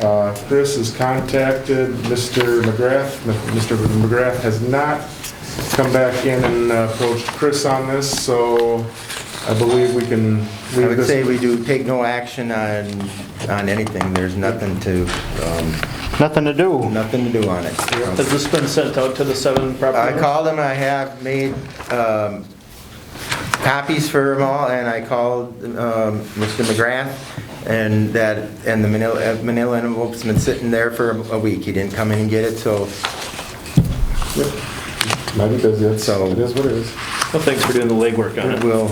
Uh, Chris has contacted Mr. McGrath. Mr. McGrath has not come back in and uh, approached Chris on this, so I believe we can I leave would say this. we do take no action on, on anything. There's nothing to, um, Nothing to do. nothing to do on it. Has this been sent out to the seven I property? called them, I have made um, copies for them all, and I called um, Mr. McGrath, and that, and the manila uh, manila envelope's been sitting there for a- a week. He didn't come in and get it, so Might be busy, it's- So- it is what it is. Well, thanks for doing the legwork on it. we'll,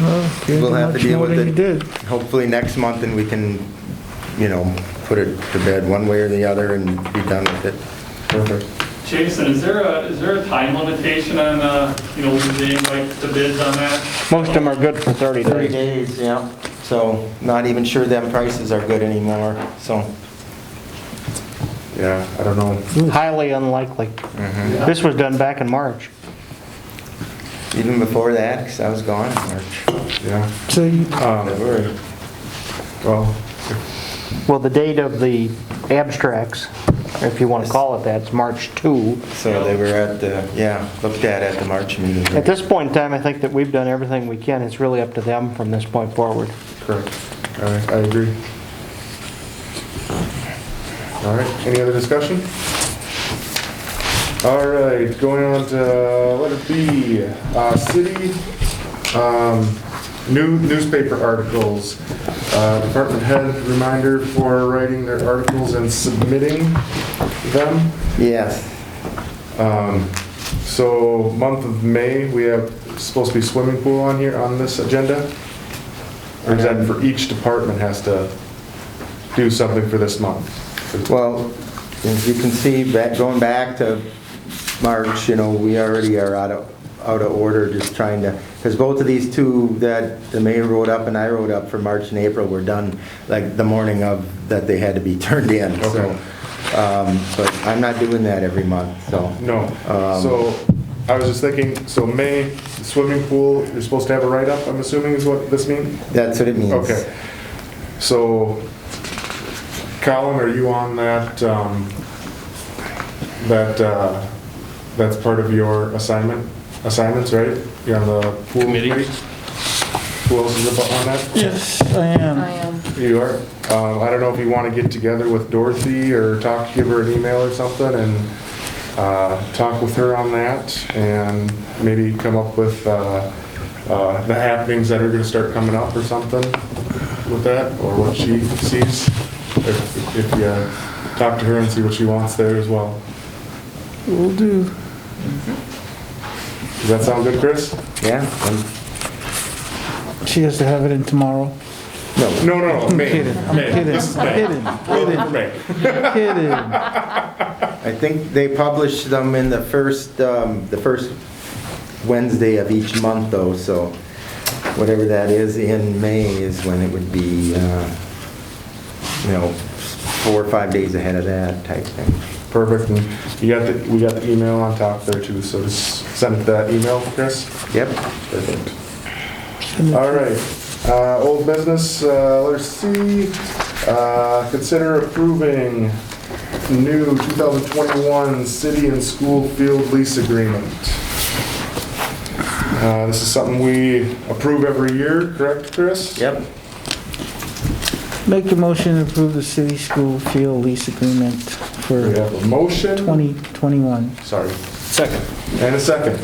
Well, you We'll have to much deal more with it. than you did. hopefully next month, and we can, you know, put it to bed one way or the other and be done with it. Perfect. Jason, is there a, is there a time limitation on, uh, you know, being like the bids on that? Most of them are good for 30 30 days. days, yeah. So not even sure them prices are good anymore, so. Yeah, I don't know. Highly unlikely. This was done back in March. Even before that, because I was gone in March. Yeah. So you- Um, Well, Well, the date of the abstracts, if you want to call it that, is March 2. So they were at the, yeah, looked at at the March meeting. At this point in time, I think that we've done everything we can. It's really up to them from this point forward. correct. All right, I agree. All right, any other discussion? All right, going on to letter B, uh, city, um, new newspaper articles. Uh, department head reminder for writing their articles and submitting them. Yes. Um, So month of May, we have, supposed to be swimming pool on here, on this agenda? Or is that for each department has to do something for this month? Well, as you can see, back, going back to March, you know, we already are out of, out of order, just trying to, because both of these two that the mayor wrote up and I wrote up for March and April were done, like, the morning of, that they had to be turned in, so. um, But I'm not doing that every month, so. No, Um, so I was just thinking, so May, swimming pool, you're supposed to have a write-up, I'm assuming is what this means? That's what it means. Okay. So Colin, are you on that, um, that, uh, that's part of your assignment, assignments, right? You're on the pool Committee. committee? Who else is abo- on that? Yes, I I am. am. You are? Um, I don't know if you want to get together with Dorothy or talk, give her an email or something and uh, talk with her on that and maybe come up with uh, uh, the happenings that are going to start coming up or something with that, or what she sees. If if you uh, talk to her and see what she wants there as well. Will do. Does that sound good, Chris? Yeah, I'm- She has to have it in tomorrow. no, No, no, no, I'm May. kidding, I'm May. kidding, This is I'm May. kidding, We're in for May. kidding. I think they publish them in the first, um, the first Wednesday of each month though, so whatever that is in May is when it would be, uh, you know, four or five days ahead of that type thing. Perfect. And You got the, we got the email on top there too, so just send that email, Chris. Yep. Perfect. All right, uh, old business, uh, letter C, uh, consider approving new 2021 city and school field lease agreement. Uh, this is something we approve every year, correct, Chris? Yep. Make a motion to approve the city school field lease agreement We for have a motion. 2021. Sorry. Second. And a second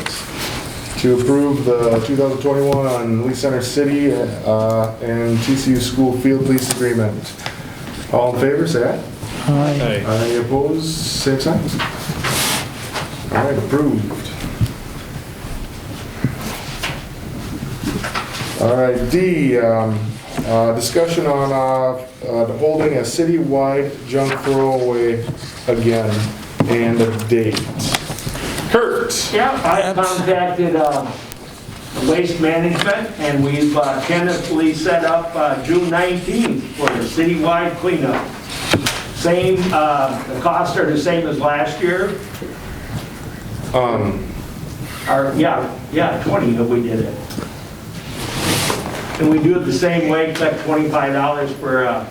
to approve the 2021 on Lee Center City uh, and TCU School Field Lease Agreement. All in favor, say aye. Aye. Aye opposed, same sign. All right, approved. All right, D, um, uh, discussion on uh, uh, holding a citywide junk throwaway again and a date. Kurt? Yeah, I contacted um, Waste Management, and we've uh, tentatively set up uh, June 19th for the citywide cleanup. Same, uh, the costs are the same as last year, Um, or, yeah, yeah, 20 if we did it. And we do it the same way, except $25 for uh,